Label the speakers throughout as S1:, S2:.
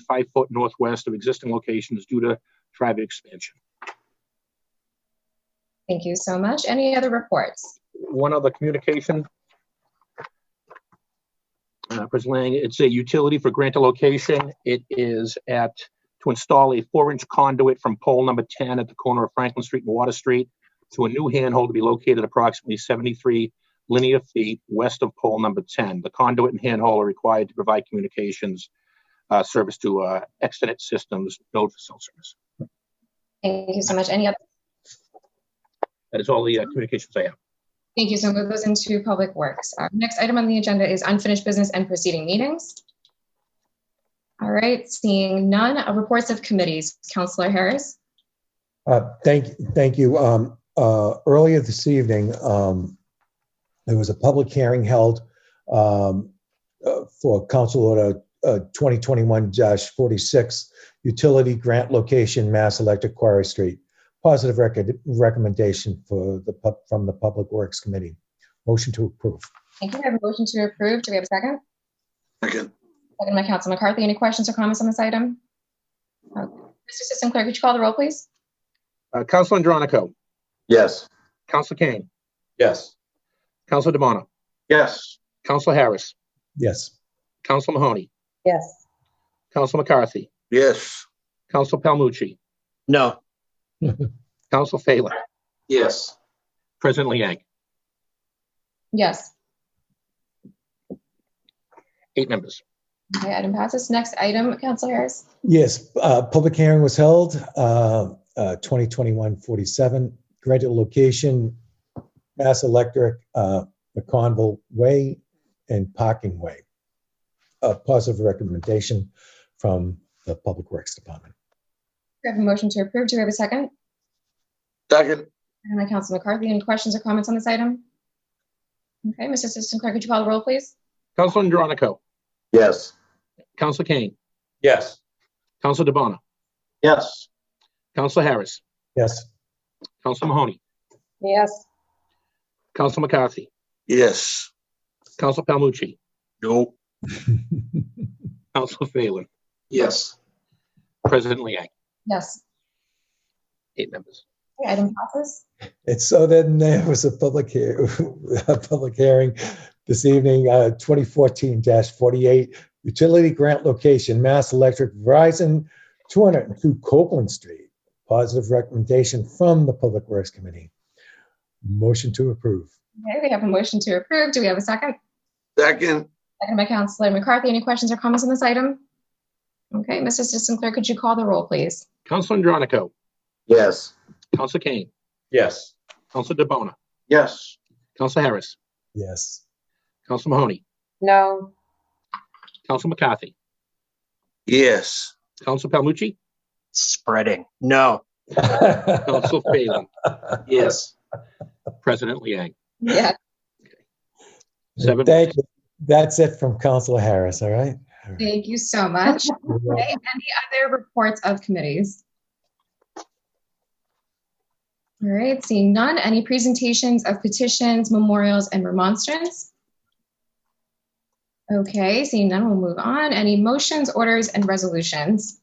S1: five foot northwest of existing locations due to traffic expansion.
S2: Thank you so much. Any other reports?
S1: One other communication. Uh, President Lang, it's a utility for grant a location. It is at, to install a four-inch conduit from pole number 10 at the corner of Franklin Street and Water Street to a new handhold to be located approximately 73 linear feet west of pole number 10. The conduit and handhold are required to provide communications uh, service to uh, extranet systems, node for cell service.
S2: Thank you so much. Any other?
S1: That is all the uh, communications I have.
S2: Thank you. So move those into public works. Our next item on the agenda is unfinished business and preceding meetings. All right, seeing none. Uh, Reports of committees. Counselor Harris.
S3: Uh, Thank, thank you. Um, uh, Earlier this evening, um, there was a public hearing held um, uh, for Council Order uh, 2021-46, Utility Grant Location, Mass Electric Quarry Street. Positive record, recommendation for the, pub- from the Public Works Committee. Motion to approve.
S2: Thank you. We have a motion to approve. Do we have a second?
S4: Second,
S2: Second by Council McCarthy. Any questions or comments on this item? Okay. Mr. Assistant Clerk, could you call the roll, please?
S1: Uh, Council Andronico,
S4: yes.
S1: Council Kane,
S4: Yes.
S1: Council DeBona,
S4: Yes.
S1: Council Harris,
S3: Yes.
S1: Council Mahoney,
S5: yes,
S1: Council McCarthy,
S4: Yes.
S1: Council Palmucci,
S4: No.
S1: Council Phelan,
S4: Yes.
S1: President Liang,
S2: Yes.
S1: eight members.
S2: Okay, item passes. Next item, Council Harris.
S3: Yes, uh, public hearing was held, uh, uh, 2021-47, granted location, Mass Electric, uh, McConville Way and Parking Way. A positive recommendation from the Public Works Department.
S2: We have a motion to approve. Do we have a second?
S4: Second,
S2: Second by Council McCarthy. Any questions or comments on this item? Okay, Mr. Assistant Clerk, could you call the roll, please?
S1: Council Andronico,
S4: yes.
S1: Council Kane,
S4: Yes.
S1: Council DeBona,
S4: Yes.
S1: Council Harris,
S3: Yes,
S1: Council Mahoney,
S5: yes,
S1: Council McCarthy,
S4: Yes.
S1: Council Palmucci,
S4: No.
S1: Council Phelan,
S4: Yes.
S1: President Liang,
S2: Yes.
S1: eight members.
S2: Okay, Item passes.
S3: and so then there was a public, hea- a public hearing this evening, uh, 2014-48, utility grant location, Mass Electric Verizon, 202 Copeland Street. Positive recommendation from the Public Works Committee. Motion to approve.
S2: Okay, we have a motion to approve. Do we have a second?
S4: Second,
S2: Second by Councilor McCarthy. Any questions or comments on this item? Okay, Mr. Assistant Clerk, could you call the roll, please?
S1: Council Andronico,
S4: yes.
S1: Council Kane,
S4: Yes.
S1: Council DeBona,
S4: Yes.
S1: Council Harris,
S3: Yes.
S1: Council Mahoney,
S5: no,
S1: Council McCarthy,
S4: Yes.
S1: Council Palmucci,
S6: spreading. No.
S1: Council Phelan,
S4: Yes.
S1: President Liang,
S2: Yeah.
S1: seven.
S3: Thank you. That's it from Councilor Harris, all right? All right.
S2: Thank you so much. Okay, any other reports of committees? All right, seeing none, any presentations of petitions, memorials, and remonstrance? Okay, seeing none, we'll move on. Any motions, orders, and resolutions?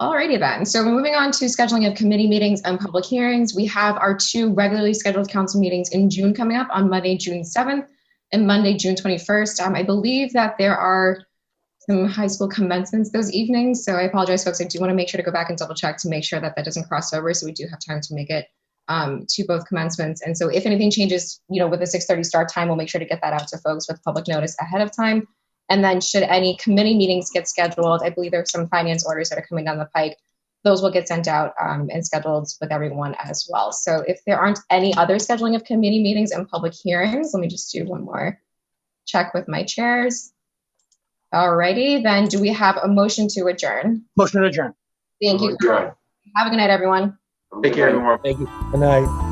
S2: Alrighty then, so moving on to scheduling of committee meetings and public hearings, we have our two regularly scheduled council meetings in June coming up on Monday, June 7th, and Monday, June 21st. Um, I believe that there are some high school commencements those evenings. So I apologize, folks. I do want to make sure to go back and double check to make sure that that doesn't cross over. So we do have time to make it um, to both commencements. And so if anything changes, you know, with the 6:30 start time, we'll make sure to get that out to folks with public notice ahead of time. And then should any committee meetings get scheduled, I believe there's some finance orders that are coming down the pike. Those will get sent out um, and scheduled with everyone as well. So if there aren't any other scheduling of committee meetings and public hearings, let me just do one more check with my chairs. Alrighty, then do we have a motion to adjourn?
S6: Motion to adjourn.
S2: Thank you. Have a good night, everyone.
S4: Take care, everyone.
S3: Good night.